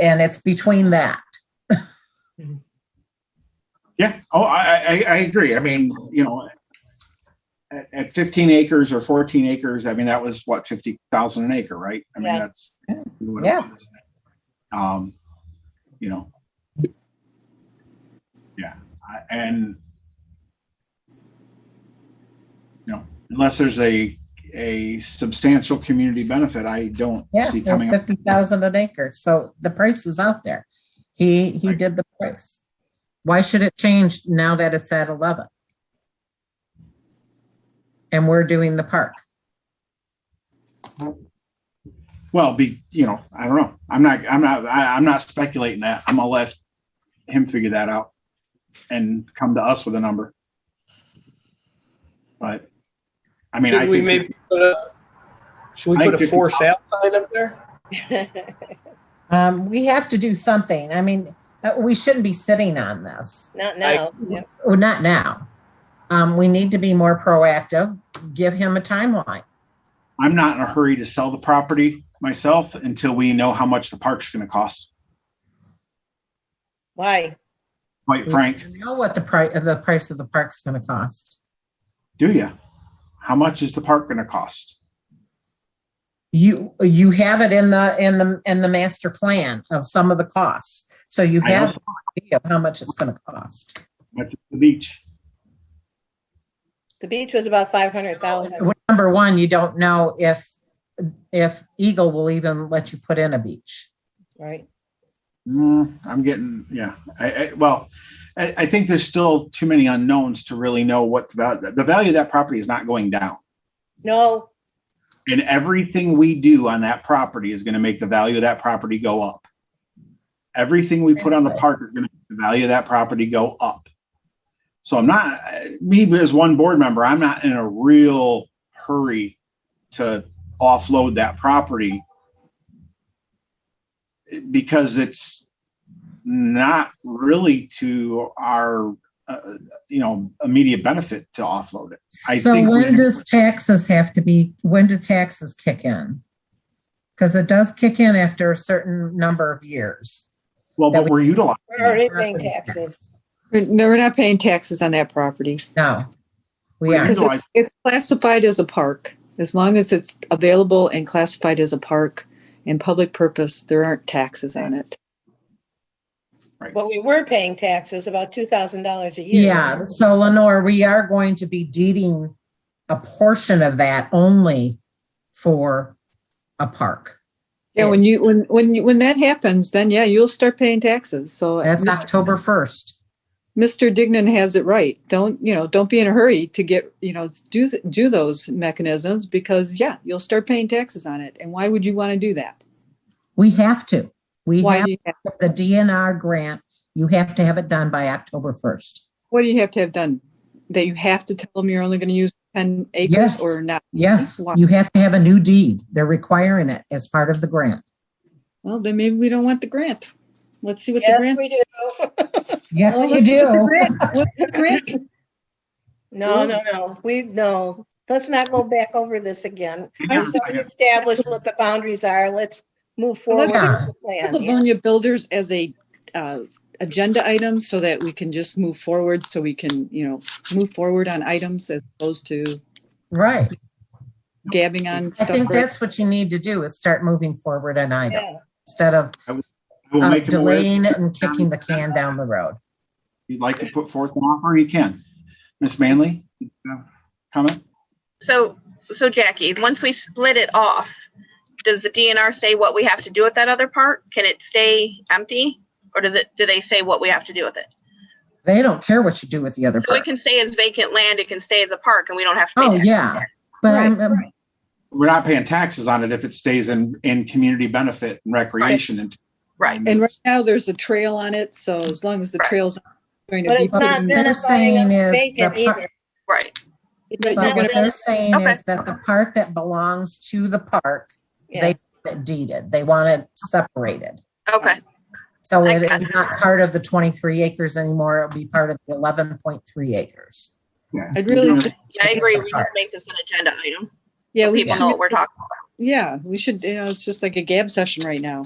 and it's between that. Yeah, oh, I, I, I agree. I mean, you know, at, at fifteen acres or fourteen acres, I mean, that was what, fifty thousand an acre, right? I mean, Yeah. that's. what it Yeah. was. Um, you know. Yeah, I- and you know, unless there's a, a substantial community benefit, I don't Yeah, see it's coming up. fifty thousand an acre, so the price is out there. He, he Right. did the price. Why should it change now that it's at eleven? And we're doing the park. Well, be, you know, I don't know. I'm not, I'm not, I, I'm not speculating that. I'm gonna let him figure that out and come to us with a number. But, I mean, I Should we think, maybe put a, should I we put think a fifty for sale sign up there? Um, we have to do something. I mean, uh, we shouldn't be sitting on this. Not now. Yeah. Oh, not now. Um, we need to be more proactive. Give him a timeline. I'm not in a hurry to sell the property myself until we know how much the park's gonna cost, Why? Mm. quite frank. You know what the price, the price of the park's gonna cost. Do you? How much is the park gonna cost? You, you have it in the, in the, in the master plan of some of the costs. So you I know. have an idea of how much it's gonna cost. Much of the beach? The beach was about five hundred thousand. Number one, you don't know if, if Eagle will even let you put in a beach. Right. Mm, I'm getting, yeah, I, I, well, I, I think there's still too many unknowns to really know what the value, the value of that property is not going down. No, And everything we do on that property is gonna make the value of that property go up. Everything we put on the park is gonna make the value of that property go up. So I'm not, me as one board member, I'm not in a real hurry to offload that property because it's not really to our, uh, you know, immediate benefit to offload it. I So think we- when does taxes have to be, when do taxes kick in? Because it does kick in after a certain number of years. Well, but we're utilizing. we're already it. paying taxes. We're no, we're not paying taxes on that property. No, we We're are. Because utilizing- it's, it's classified as a park. As long as it's available and classified as a park in public purpose, there aren't taxes on it. But we were paying taxes about two thousand dollars a year. Yeah, so Lenore, we are going to be deeding a portion of that only for a park. Yeah, when you, when, when, you- when that happens, then yeah, you'll start paying taxes. So That's Mr. October first. Mr. Dignan has it right. Don't, you know, don't be in a hurry to get, you know, do, th- do those mechanisms because yeah, you'll start paying taxes on it. And why would you want to do that? We have to. We Why have do you have, the DNR grant. You have to have it done by October first. what do you have to have done? That you have to tell them you're only going to use 10 acres Yes. or not? Yes, Why? you have to have a new deed. They're requiring it as part of the grant. Well, then maybe we don't want the grant. Let's see what the Yes, grant. we do. Yes, Well, you let's see what the do. grant- what the grant- No, no, no. We, no. Let's not go back over this again. Hang on a Let's second. Establish what the boundaries are. Let's move forward with Well, let's the plan. Yeah. Livonia Builders as a uh, agenda item so that we can just move forward, so we can, you know, move forward on items as opposed to Right. gabbing on I stuff. think right- that's what you need to do is start moving forward on Yeah. items instead of I Uh, will of make him aware. If delaying it and kicking the can down the road. you'd like to put forth an offer, you can. Ms. Manley, you have a comment? So, so Jackie, once we split it off, does the DNR say what we have to do with that other part? Can it stay empty? Or does it, do they say what we have to do with it? They don't care what you do with the other So it part. can stay as vacant land, it can stay as a park and we don't have to Oh, pay yeah. But I'm, I'm- We're not paying taxes on it if it stays in, in community benefit and recreation and. Right. And right now, there's a trail on it, so as long as the trail's going to But be. it's not they're identifying saying us is the vacant par- either. Right, It's But not but what identifying- they're saying Okay. is that the part that belongs to the park yeah. that deeded, they want it separated. okay, So I it got is not part of the twenty-three acres anymore. It'll be part of the eleven point three acres. I'd really, Yeah. su- yeah, I agree, we need to make this an agenda item, yeah, we people know should, what we're talking yeah, we should, you know, it's just like a gab session right now.